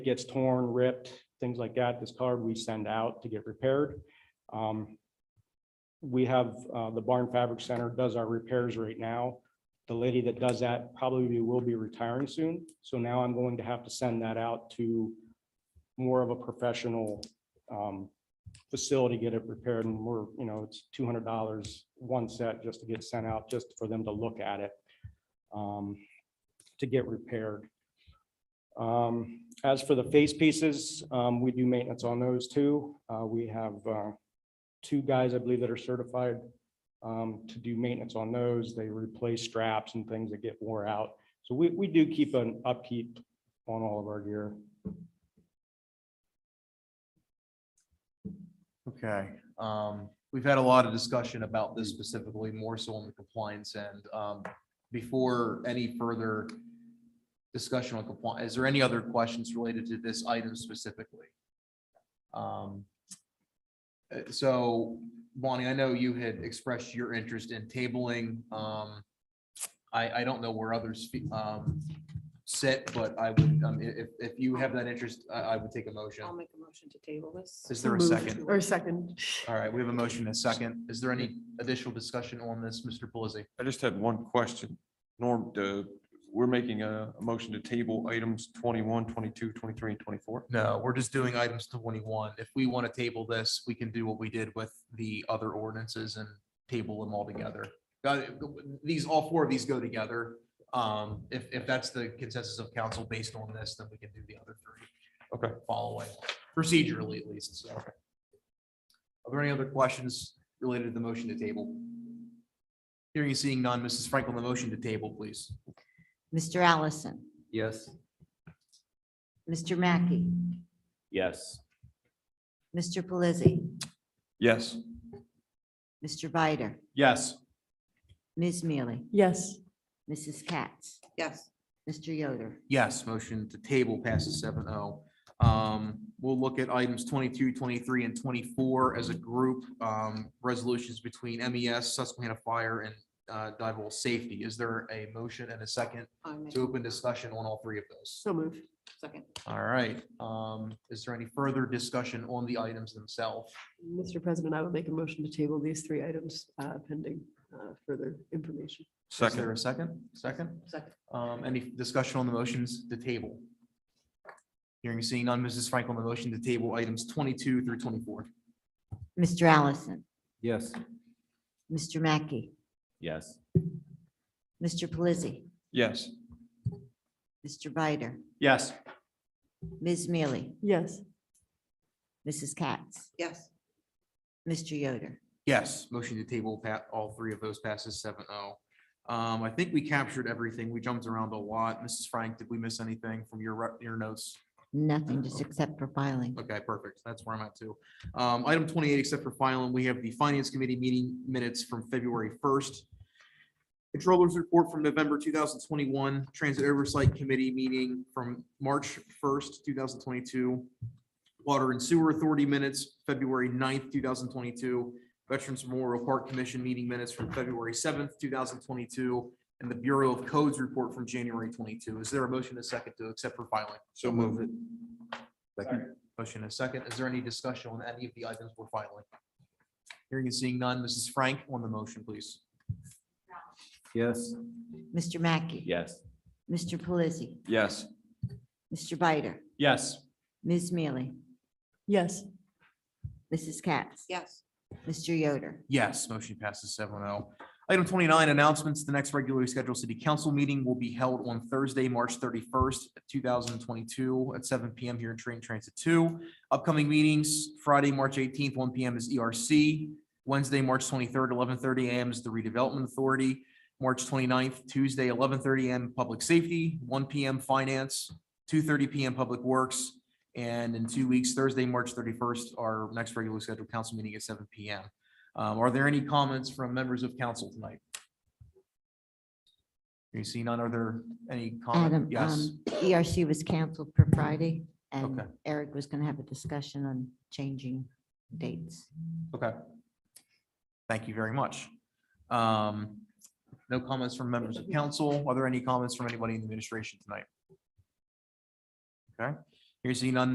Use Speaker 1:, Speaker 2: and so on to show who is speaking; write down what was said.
Speaker 1: gets torn, ripped, things like that, this card we send out to get repaired. Um, We have, uh, the Barn Fabric Center does our repairs right now. The lady that does that probably will be retiring soon, so now I'm going to have to send that out to more of a professional um, facility, get it repaired, and we're, you know, it's two hundred dollars one set just to get sent out, just for them to look at it um, to get repaired. Um, as for the face pieces, um, we do maintenance on those too. Uh, we have, uh, two guys, I believe, that are certified, um, to do maintenance on those. They replace straps and things that get wore out. So we, we do keep an upkeep on all of our gear.
Speaker 2: Okay, um, we've had a lot of discussion about this specifically, more so on the compliance end. Um, before any further discussion on compliance, is there any other questions related to this item specifically? Um, uh, so Bonnie, I know you had expressed your interest in tabling, um, I, I don't know where others, fe- um, sit, but I would, um, i- if, if you have that interest, I, I would take a motion.
Speaker 3: I'll make a motion to table this.
Speaker 2: Is there a second?
Speaker 4: Or second.
Speaker 2: All right, we have a motion and a second. Is there any additional discussion on this, Mr. Pelisi?
Speaker 5: I just had one question. Norm, uh, we're making a, a motion to table items 21, 22, 23, and twenty-four.
Speaker 2: No, we're just doing items twenty-one. If we want to table this, we can do what we did with the other ordinances and table them all together. Uh, These, all four of these go together. Um, If, if that's the consensus of council based on this, then we can do the other three.
Speaker 5: Okay.
Speaker 2: Following procedurally at least, so. Are there any other questions related to the motion to table? Hearing and seeing none, Mrs. Franklin, the motion to table, please.
Speaker 6: Mr. Allison,
Speaker 7: Yes.
Speaker 6: Mr. Mackey,
Speaker 7: Yes.
Speaker 6: Mr. Pelisi,
Speaker 5: Yes.
Speaker 6: Mr. Bider,
Speaker 2: Yes.
Speaker 6: Ms. Mealy,
Speaker 4: Yes.
Speaker 6: Mrs. Katz,
Speaker 3: Yes,
Speaker 6: Mr. Yoder,
Speaker 2: Yes, motion to table passes seven oh. Um, we'll look at items 22, 23, and twenty-four as a group, um, resolutions between MES, Susquehanna Fire and uh, Dival Safety. Is there a motion and a second
Speaker 3: I make
Speaker 2: to open discussion on all three of those?
Speaker 4: So moved.
Speaker 3: second.
Speaker 2: All right, um, is there any further discussion on the items themselves?
Speaker 4: Mr. President, I would make a motion to table these three items uh, pending uh, further information.
Speaker 2: Is there
Speaker 5: Second,
Speaker 2: a second? Second?
Speaker 3: Second.
Speaker 2: Um, any discussion on the motions to table? Hearing seeing none, Mrs. Franklin, the motion to table items twenty-two through twenty-four.
Speaker 6: Mr. Allison,
Speaker 7: Yes.
Speaker 6: Mr. Mackey,
Speaker 7: Yes.
Speaker 6: Mr. Pelisi,
Speaker 5: yes.
Speaker 6: Mr. Bider,
Speaker 2: Yes.
Speaker 6: Ms. Mealy,
Speaker 4: Yes.
Speaker 6: Mrs. Katz,
Speaker 3: Yes,
Speaker 6: Mr. Yoder,
Speaker 2: Yes, motion to table, Pat, all three of those passes seven oh. Um, I think we captured everything. We jumped around a lot. Mrs. Frank, did we miss anything from your, re- your notes?
Speaker 6: nothing just except for filing.
Speaker 2: Okay, perfect. That's where I'm at too. Um, item twenty-eight, except for filing, we have the finance committee meeting minutes from February first. Controllers report from November two thousand twenty-one, transit oversight committee meeting from March first, two thousand twenty-two. Water and sewer authority minutes, February 9th, two thousand twenty-two. Veterans Memorial Park Commission meeting minutes from February seventh, two thousand twenty-two. And the Bureau of Codes report from January twenty-two. Is there a motion to second to accept for filing?
Speaker 5: So move it.
Speaker 2: Motion and a second. Is there any discussion on any of the items we're filing? Hearing and seeing none. Mrs. Frank on the motion, please.
Speaker 7: Yes.
Speaker 6: Mr. Mackey.
Speaker 7: Yes.
Speaker 6: Mr. Pelisi,
Speaker 5: Yes.
Speaker 6: Mr. Bider,
Speaker 5: Yes.
Speaker 6: Ms. Mealy,
Speaker 4: Yes.
Speaker 6: Mrs. Katz,
Speaker 3: yes,
Speaker 6: Mr. Yoder,
Speaker 2: Yes, motion passes seven oh. Item twenty-nine, announcements. The next regularly scheduled city council meeting will be held on Thursday, March thirty-first, two thousand twenty-two at seven PM here in Train Transit Two. Upcoming meetings, Friday, March eighteenth, one PM is ERC. Wednesday, March twenty-third, eleven thirty AM is the Redevelopment Authority. March 29th, Tuesday, eleven thirty AM, Public Safety, one PM Finance, two thirty PM Public Works. And in two weeks, Thursday, March thirty-first, our next regularly scheduled council meeting at seven PM. Um, are there any comments from members of council tonight? You see none? Are there any
Speaker 6: Adam,
Speaker 2: comments? Yes.
Speaker 6: um, the ERC was canceled for Friday, and
Speaker 2: Okay.
Speaker 6: Eric was going to have a discussion on changing dates.
Speaker 2: Okay. Thank you very much. Um, no comments from members of council. Are there any comments from anybody in the administration tonight? Okay, Hearing seeing none,